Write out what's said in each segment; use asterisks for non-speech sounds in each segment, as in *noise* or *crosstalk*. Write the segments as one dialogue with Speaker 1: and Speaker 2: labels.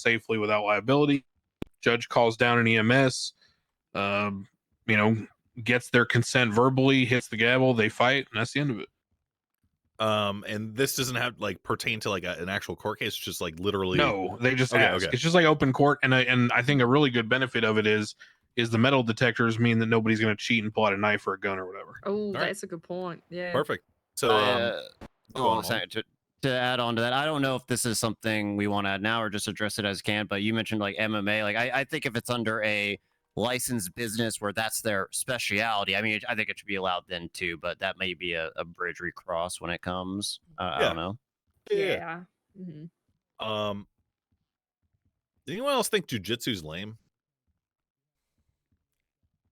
Speaker 1: safely without liability. Judge calls down an EMS, um, you know, gets their consent verbally, hits the gavel, they fight, and that's the end of it.
Speaker 2: Um, and this doesn't have like pertain to like a, an actual court case. It's just like literally.
Speaker 1: No, they just
Speaker 2: Okay,
Speaker 1: ask.
Speaker 2: okay.
Speaker 1: It's just like open court, and I and I think a really good benefit of it is is the metal detectors mean that nobody's going to cheat and pull out a knife or a gun or whatever.
Speaker 3: Oh,
Speaker 2: right.
Speaker 3: that's a good point. Yeah.
Speaker 2: Perfect. So,
Speaker 4: I,
Speaker 2: um,
Speaker 4: uh,
Speaker 2: go
Speaker 4: oh,
Speaker 2: on, Juan.
Speaker 4: sorry, to-
Speaker 5: to add on to that, I don't know if this is something we want to add now or just address it as can, but you mentioned like MMA. Like, I, I think if it's under a licensed business where that's their specialty, I mean, I think it should be allowed then too, but that may be a, a bridge we cross when it comes. Uh, I
Speaker 2: Yeah.
Speaker 5: don't know.
Speaker 2: yeah.
Speaker 3: Yeah. Mhm.
Speaker 2: Um, did anyone else think jujitsu's lame? *laughs*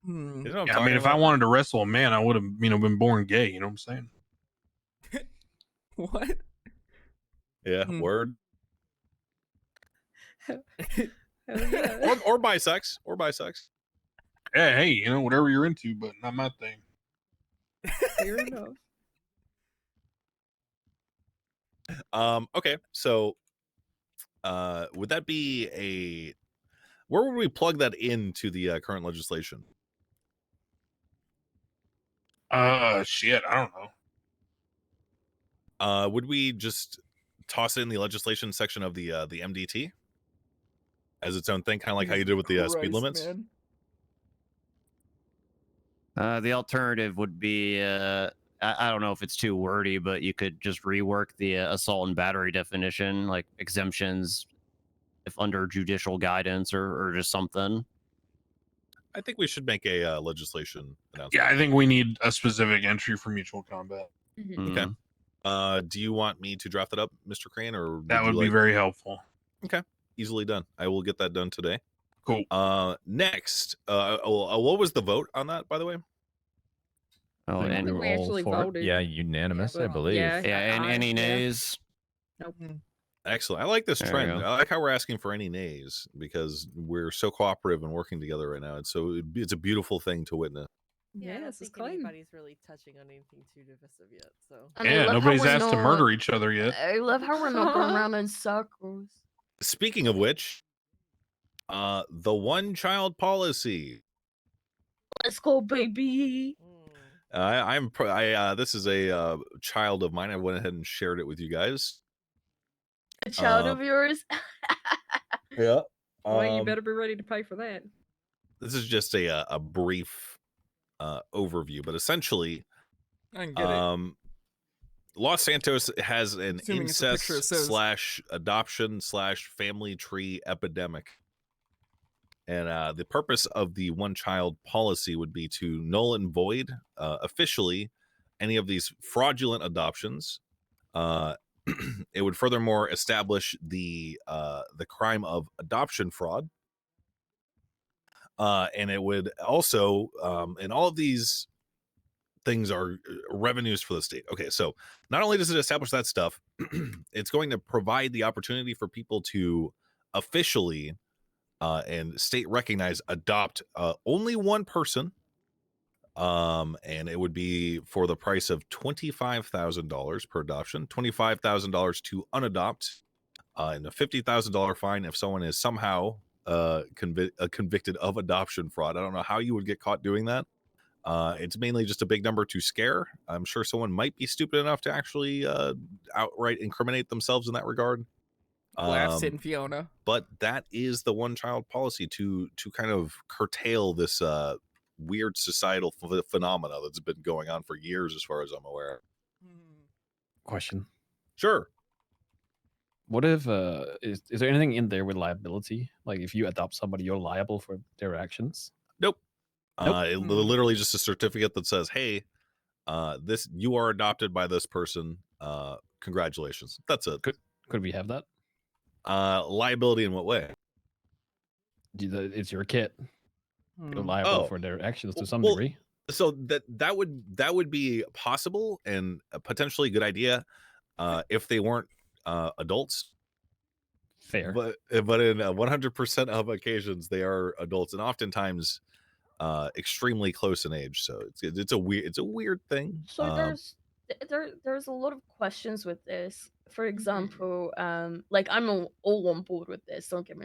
Speaker 6: Hmm.
Speaker 2: You know what I'm
Speaker 1: Yeah, I
Speaker 2: talking
Speaker 1: mean, if I
Speaker 2: about?
Speaker 1: wanted to wrestle a man, I would have you know been born gay. You know what I'm saying?
Speaker 6: What?
Speaker 2: yeah,
Speaker 6: Hmm.
Speaker 2: word
Speaker 3: Hell yeah.
Speaker 2: or or bisex or bisex.
Speaker 1: Yeah, hey, you know whatever you're into, but not my thing.
Speaker 3: Fair enough.
Speaker 2: Um, okay, so uh would that be a where would we plug that into the uh, current legislation?
Speaker 1: Uh, shit, I don't know.
Speaker 2: Uh would we just toss it in the legislation section of the uh the MDT as its own thing, kind of like how you did with the uh, speed
Speaker 6: Christ,
Speaker 2: limits?
Speaker 6: man.
Speaker 5: Uh, the alternative would be uh, I, I don't know if it's too wordy, but you could just rework the uh, assault and battery definition, like exemptions, if under judicial guidance or, or just something.
Speaker 2: I think we should make a uh, legislation announcement.
Speaker 1: Yeah, I think we need a specific entry for mutual combat.
Speaker 3: Mhm.
Speaker 5: Mm.
Speaker 2: Uh, do you want me to draft it up, Mr. Crane, or
Speaker 1: That
Speaker 2: you
Speaker 1: would be
Speaker 2: like-
Speaker 1: very helpful.
Speaker 2: easily done. I will get that done today.
Speaker 1: Cool.
Speaker 2: Uh, next, uh, oh, uh, what was the vote on that, by the way?
Speaker 5: Oh,
Speaker 3: I don't
Speaker 5: and
Speaker 3: think we actually
Speaker 7: for it.
Speaker 3: voted.
Speaker 7: Yeah, unanimous, I
Speaker 3: but-
Speaker 7: believe.
Speaker 3: yeah.
Speaker 5: Yeah, and
Speaker 3: I-
Speaker 5: any
Speaker 3: yeah.
Speaker 5: nays?
Speaker 6: Mm-hmm.
Speaker 2: Excellent. I like this
Speaker 5: There you
Speaker 2: trend.
Speaker 5: go.
Speaker 2: I like how we're asking for any nays because we're so cooperative and working together right now. It's so it'd be- it's a beautiful thing to witness.
Speaker 3: Yeah,
Speaker 8: I don't
Speaker 3: this is
Speaker 8: think
Speaker 3: clean.
Speaker 8: anybody's really touching on anything too divisive yet. So
Speaker 9: And I
Speaker 1: Yeah,
Speaker 9: love how
Speaker 1: nobody's
Speaker 9: we're
Speaker 1: asked to
Speaker 9: not-
Speaker 1: murder each other yet.
Speaker 9: I love how we're not
Speaker 1: *laughs*
Speaker 9: going around in circles.
Speaker 2: Speaking of which, uh, the one child policy.
Speaker 9: Let's go, baby.
Speaker 8: mm,
Speaker 2: I, I'm pro- I uh, this is a uh, child of mine. I went ahead and shared it with you guys.
Speaker 9: A child
Speaker 2: Uh,
Speaker 9: of yours. *laughs*
Speaker 2: Yeah.
Speaker 7: Um,
Speaker 3: Well,
Speaker 6: um,
Speaker 3: you better be ready to pay for that.
Speaker 2: This is just a uh, a brief uh, overview, but essentially,
Speaker 6: I can get it.
Speaker 2: um los santos has an
Speaker 6: Assuming it's a
Speaker 2: incest
Speaker 6: picture, it says-
Speaker 2: slash adoption slash family tree epidemic and uh the purpose of the one child policy would be to null and void uh, officially any of these fraudulent adoptions uh *clears throat* it would furthermore establish the uh the crime of adoption fraud uh, and it would also um, and all of these things are uh, revenues for the state okay so not only does it establish that stuff *clears throat* it's going to provide the opportunity for people to officially uh, and state recognized adopt uh, only one person um and it would be for the price of $25000 per adoption $25000 to unadopt uh, and a $50000 fine if someone is somehow uh, convi- uh, convicted of adoption fraud. I don't know how you would get caught doing that. Uh, it's mainly just a big number to scare. I'm sure someone might be stupid enough to actually uh, outright incriminate themselves in that regard.
Speaker 6: Laughs
Speaker 2: Um,
Speaker 6: in Fiona.
Speaker 2: but that is the one child policy to to kind of curtail this uh, weird societal ph- phenomena that's been going on for years, as far as I'm aware.
Speaker 7: Question.
Speaker 2: Sure.
Speaker 7: What if uh is, is there anything in there with liability? Like if you adopt somebody, you're liable for their actions. Nope.
Speaker 2: Uh, it,
Speaker 6: Hmm.
Speaker 2: literally just a certificate that says, "Hey, uh, this you are adopted by this person. Uh, congratulations." That's it.
Speaker 7: Could we have that?
Speaker 2: Uh, liability in what way?
Speaker 7: Do the- It's your kid.
Speaker 6: Hmm.
Speaker 7: You're liable
Speaker 2: Oh.
Speaker 7: for their actions
Speaker 2: Well-
Speaker 7: to some
Speaker 2: well,
Speaker 7: degree.
Speaker 2: So that that would that would be possible and a potentially good idea uh, if they weren't uh, adults.
Speaker 7: Fair.
Speaker 2: But uh, but in uh, 100% of occasions, they are adults and oftentimes uh, extremely close in age. So it's it's a weird it's a weird thing.
Speaker 9: So
Speaker 2: um,
Speaker 9: there's th- there there's a lot of
Speaker 1: Mm-hmm.
Speaker 9: questions with this. For example, um, like I'm all all on board with this. Don't get me